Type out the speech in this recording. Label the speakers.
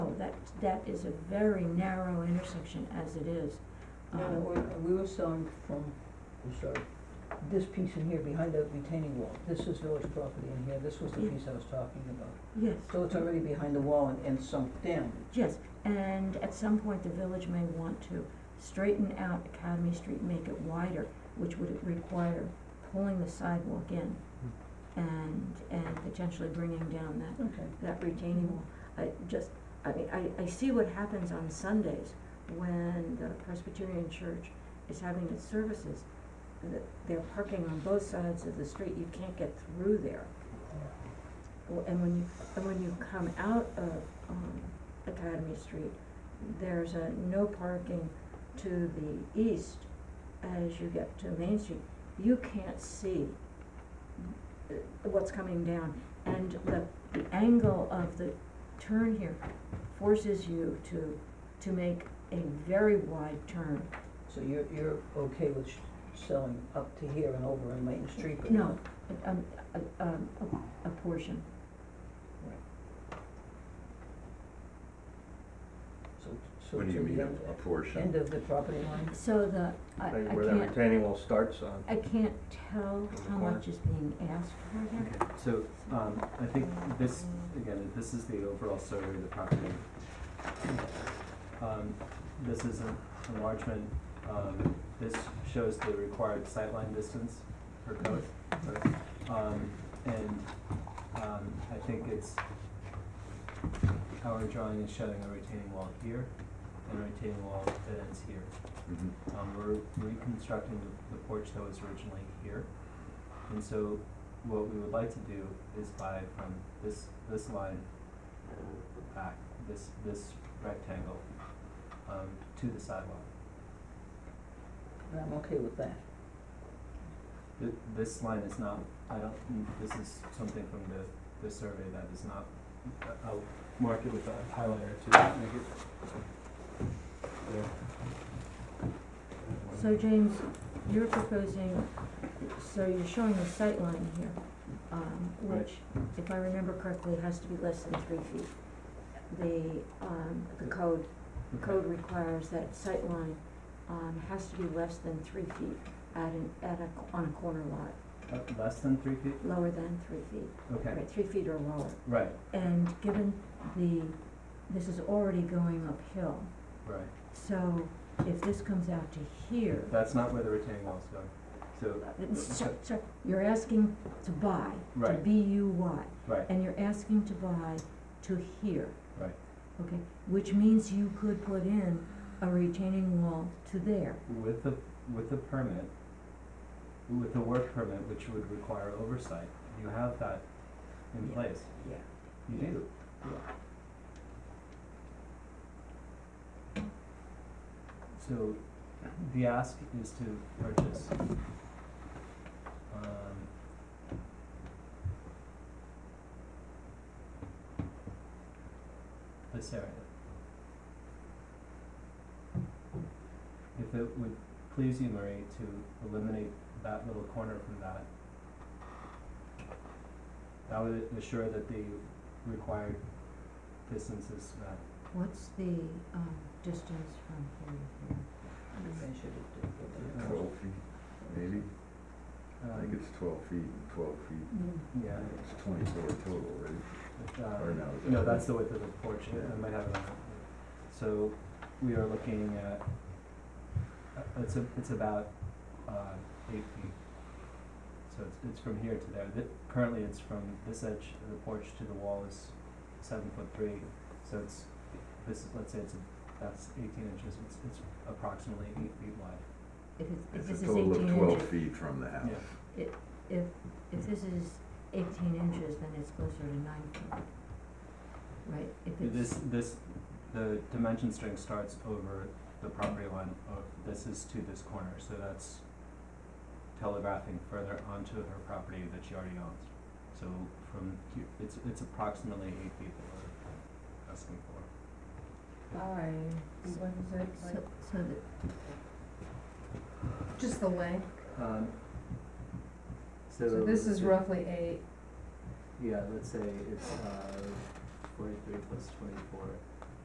Speaker 1: that, that is a very narrow intersection as it is.
Speaker 2: No,
Speaker 1: Um,
Speaker 2: we, we were selling from, I'm sorry, this piece in here behind the retaining wall, this is village property in here, this was the
Speaker 1: Yeah.
Speaker 2: piece I was talking about.
Speaker 1: Yes.
Speaker 2: So it's already behind the wall and, and sunk down.
Speaker 1: Yes, and at some point, the village may want to straighten out Academy Street, make it wider, which would require pulling the sidewalk in and, and potentially bringing down that
Speaker 2: Okay.
Speaker 1: that retaining wall. I just, I mean, I, I see what happens on Sundays when the Presbyterian Church is having its services. That they're parking on both sides of the street, you can't get through there. W- And when you, and when you come out of, um, Academy Street, there's a no parking to the east as you get to Main Street. You can't see uh, what's coming down, and the the angle of the turn here forces you to, to make a very wide turn.
Speaker 2: So you're, you're okay with sh- selling up to here and over on Main Street, but
Speaker 1: No, um, a, um, a, a portion.
Speaker 2: So, so
Speaker 3: What
Speaker 2: to
Speaker 3: do you mean,
Speaker 2: the end, uh,
Speaker 3: a
Speaker 2: end
Speaker 3: portion?
Speaker 2: of the property line?
Speaker 1: So the, I, I
Speaker 4: Right,
Speaker 1: can't.
Speaker 4: where that retaining wall starts on.
Speaker 1: I can't tell
Speaker 4: the
Speaker 1: how
Speaker 4: corner.
Speaker 1: much is being asked for here.
Speaker 5: Okay, so, um, I think this, again, this is the overall survey of the property. Um, this is an enlargement, um, this shows the required sightline distance for code. Um, and, um, I think it's, our drawing is showing a retaining wall here and a retaining wall that ends here.
Speaker 3: Mhm.
Speaker 5: Um, we're reconstructing the the porch that was originally here. And so what we would like to do is buy from this, this line back, this, this rectangle, um, to the sidewalk.
Speaker 2: And I'm okay with that.
Speaker 5: Th- this line is not, I don't, mm, this is something from the, the survey that is not, I- I'll mark it with a highlighter to make it. there.
Speaker 1: So James, you're proposing, so you're showing the sight line here, um, which, if I remember correctly, has to be less than three feet. The, um, the code, the
Speaker 5: Okay.
Speaker 1: code requires that sight line um, has to be less than three feet at an, at a, on a corner lot,
Speaker 5: Uh, less than three feet?
Speaker 1: lower than three feet,
Speaker 5: Okay,
Speaker 1: right, three feet or lower.
Speaker 5: right,
Speaker 1: And given the, this is already going uphill,
Speaker 5: right.
Speaker 1: so if this comes out to here,
Speaker 5: That's not where the retaining wall is going. So,
Speaker 1: So, so you're asking to buy, to
Speaker 5: Right.
Speaker 1: B U Y,
Speaker 5: right,
Speaker 1: and you're asking to buy to here.
Speaker 5: Right.
Speaker 1: Okay, which means you could put in a retaining wall to there.
Speaker 5: with the, with the permit, with the work permit, which would require oversight, you have that in
Speaker 2: Yeah.
Speaker 5: place.
Speaker 2: Yeah.
Speaker 5: You do.
Speaker 2: Yeah.
Speaker 5: So the ask is to purchase. Um, this area. If it would please you, Marie, to eliminate that little corner from that, that would assure that the required distance is uh, met.
Speaker 1: What's the, um, distance from here to here?
Speaker 2: We measured it, uh,
Speaker 5: Yeah.
Speaker 3: Twelve feet, maybe? I think
Speaker 5: Um,
Speaker 3: it's twelve feet, and twelve feet.
Speaker 5: Yeah,
Speaker 3: It's twenty-four total, right?
Speaker 5: but, um,
Speaker 3: Or no? is that-
Speaker 5: no, that's the width of the porch, I-
Speaker 3: Yeah.
Speaker 5: I might have it on. So we are looking at, uh, it's a, it's about, uh, eight feet. So it's, it's from here to there, Th currently it's from this edge of the porch to the wall is seven foot three, so it's, this is, let's say it's, a- that's eighteen inches, it's, it's approximately eight feet wide.
Speaker 1: If it's, if
Speaker 3: It's
Speaker 1: this
Speaker 3: a
Speaker 1: is
Speaker 3: total
Speaker 1: eighteen
Speaker 3: of twelve
Speaker 1: inches,
Speaker 3: feet from the house.
Speaker 1: if, if this is eighteen inches, then it's closer to nine feet. Right, if it's.
Speaker 5: This, this, the dimension string starts over the property line, of this is to this corner, so that's telegraphing further onto her property that she already owns. So from here, it's, it's approximately eight feet that we're asking for.
Speaker 6: By, what is it,
Speaker 1: So,
Speaker 6: like,
Speaker 1: so the,
Speaker 6: just the length,
Speaker 5: Um, so.
Speaker 6: so this is roughly eight,
Speaker 5: Yeah, let's say it's, uh, forty-three plus twenty-four,